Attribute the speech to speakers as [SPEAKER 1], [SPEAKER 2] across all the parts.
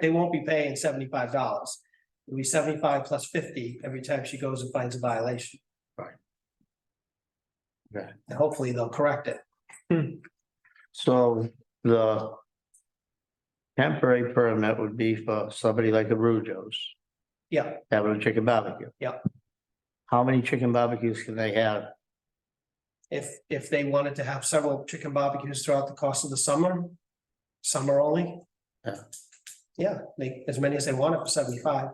[SPEAKER 1] they won't be paying seventy-five dollars. It'll be seventy-five plus fifty every time she goes and finds a violation.
[SPEAKER 2] Right.
[SPEAKER 1] Yeah.
[SPEAKER 2] Okay.
[SPEAKER 1] Hopefully they'll correct it.
[SPEAKER 2] So the temporary permit would be for somebody like a Rujos
[SPEAKER 1] Yeah,
[SPEAKER 2] having a chicken barbecue.
[SPEAKER 1] Yep.
[SPEAKER 2] How many chicken barbecues can they have?
[SPEAKER 1] if, if they wanted to have several chicken barbecues throughout the course of the summer, summer only.
[SPEAKER 2] Yeah.
[SPEAKER 1] Yeah, they, as many as they want it for seventy-five,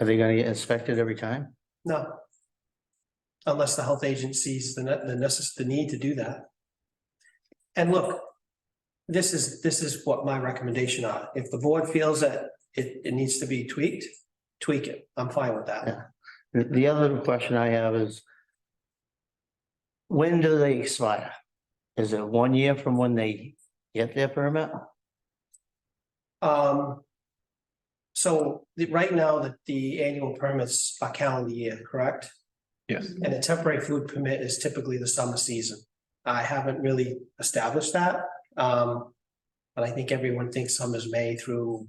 [SPEAKER 2] Are they gonna get inspected every time?
[SPEAKER 1] no. Unless the health agent sees the, ne- the necess, the need to do that. And look, this is, this is what my recommendation are. If the board feels that it, it needs to be tweaked, tweak it. I'm fine with that.
[SPEAKER 2] Yeah. The, the other question I have is when do they expire? Is it one year from when they get their permit?
[SPEAKER 1] Um. So the, right now, the, the annual permits are calendar year, correct?
[SPEAKER 3] Yes.
[SPEAKER 1] And a temporary food permit is typically the summer season. I haven't really established that, um. But I think everyone thinks summer's May through,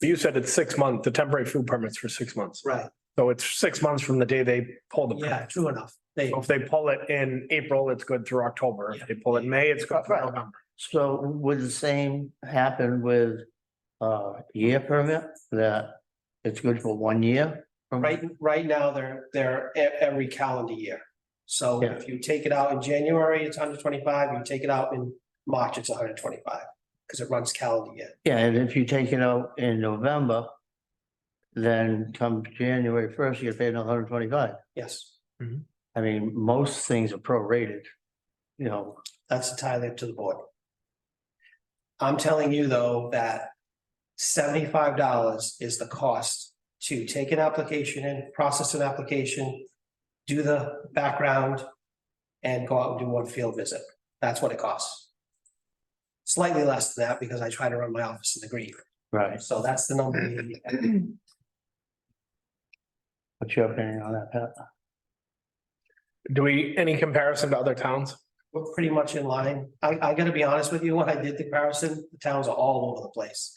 [SPEAKER 3] You said it's six months, the temporary food permits for six months.
[SPEAKER 1] right,
[SPEAKER 3] So it's six months from the day they pull the
[SPEAKER 1] yeah,
[SPEAKER 3] permit.
[SPEAKER 1] true enough. They,
[SPEAKER 3] So um, If they pull it in April, it's good through October. If they pull it in May, it's good through
[SPEAKER 2] Right.
[SPEAKER 3] November.
[SPEAKER 2] So would the same happen with uh year permit that it's good for one year? from-
[SPEAKER 1] right, right now, they're, they're e- every calendar year. So
[SPEAKER 2] Yeah.
[SPEAKER 1] if you take it out in January, it's hundred twenty-five. You take it out in March, it's hundred twenty-five. Because it runs calendar year.
[SPEAKER 2] Yeah, and if you take it out in November, then come January first, you get paid another hundred twenty-five.
[SPEAKER 1] Yes,
[SPEAKER 2] I mean, most things are prorated, you know,
[SPEAKER 1] that's entirely up to the board. I'm telling you, though, that seventy-five dollars is the cost to take an application in, process an application, do the background, and go out and do one field visit. That's what it costs. Slightly less than that because I try to run my office in the green.
[SPEAKER 2] right?
[SPEAKER 1] So that's the number. we need.
[SPEAKER 2] What's your opinion on that,
[SPEAKER 3] Uh,
[SPEAKER 2] Pat?
[SPEAKER 3] Do we, any comparison to other towns?
[SPEAKER 1] We're pretty much in line. I, I gotta be honest with you, when I did the comparison, the towns are all over the place.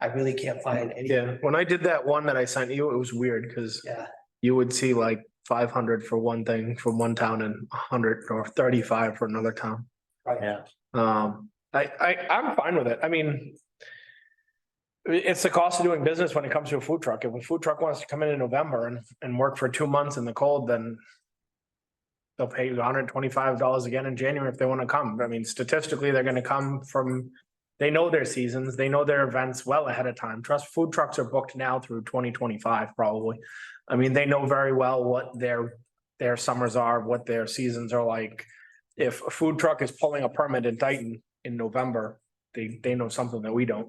[SPEAKER 1] I really can't find any.
[SPEAKER 3] Yeah, when I did that one that I sent you, it was weird because
[SPEAKER 1] Yeah.
[SPEAKER 3] you would see like five hundred for one thing from one town and hundred or thirty-five for another town.
[SPEAKER 2] Yeah,
[SPEAKER 3] Um, I, I, I'm fine with it. I mean. It's the cost of doing business when it comes to a food truck. If a food truck wants to come in in November and, and work for two months in the cold, then. They'll pay you hundred and twenty-five dollars again in January if they want to come. I mean, statistically, they're gonna come from. They know their seasons, they know their events well ahead of time. Trust food trucks are booked now through twenty twenty-five probably. I mean, they know very well what their, their summers are, what their seasons are like if a food truck is pulling a permit in Dayton in November, they, they know something that we don't.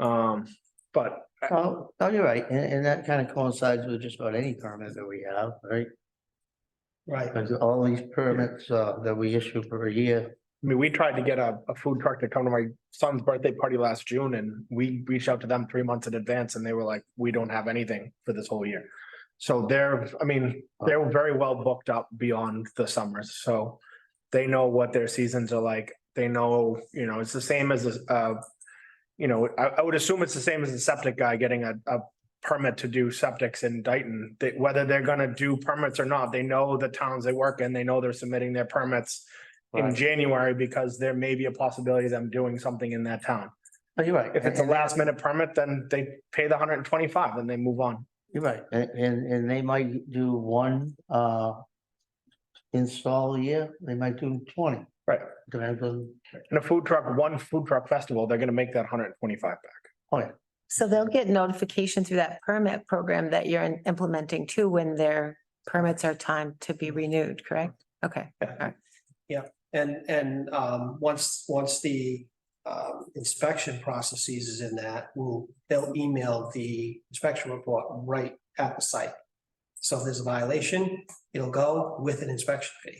[SPEAKER 3] Um, but
[SPEAKER 2] oh, oh, you're right, and, and that kind of coincides with just about any permit that we have, right?
[SPEAKER 1] Right.
[SPEAKER 2] Because all these permits, uh, that we issue for a year,
[SPEAKER 3] I mean, we tried to get a, a food truck to come to my son's birthday party last June and we reached out to them three months in advance and they were like, we don't have anything for this whole year. So they're, I mean, they're very well booked up beyond the summers, so they know what their seasons are like. They know, you know, it's the same as, a- uh, you know, I, I would assume it's the same as a septic guy getting a, a permit to do septics in Dayton. That whether they're gonna do permits or not, they know the towns they work in, they know they're submitting their permits in
[SPEAKER 2] Right.
[SPEAKER 3] January because there may be a possibility of them doing something in that town.
[SPEAKER 2] oh, you're right.
[SPEAKER 3] If it's a
[SPEAKER 2] and- and-
[SPEAKER 3] last minute permit, then they pay the hundred and twenty-five and they move on.
[SPEAKER 2] You're right, and, and, and they might do one, uh, install a year, they might do twenty.
[SPEAKER 3] Right.
[SPEAKER 2] Depends on,
[SPEAKER 3] And a food truck, one food truck festival, they're gonna make that hundred and twenty-five back.
[SPEAKER 4] So they'll get notification through that permit program that you're in- implementing too, when their permits are timed to be renewed, correct? Okay,
[SPEAKER 1] And, and, um, once, once the, um, inspection process ceases in that, we'll, they'll email the inspection report right at the site. So if there's a violation, it'll go with an inspection fee.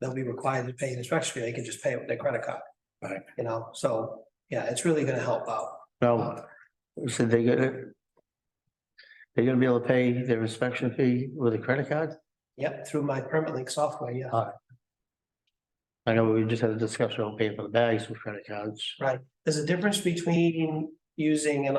[SPEAKER 1] They'll be required to pay an inspection fee. They can just pay it with their credit card.
[SPEAKER 2] Right.
[SPEAKER 1] You know, so, yeah, it's really gonna help out. Uh,
[SPEAKER 2] no, so they get it. They're gonna be able to pay their inspection fee with a credit card?
[SPEAKER 1] Yep, through my permit link software, yeah.
[SPEAKER 2] I know we just had a discussion on paying for the bags with credit cards.
[SPEAKER 1] There's a difference between using an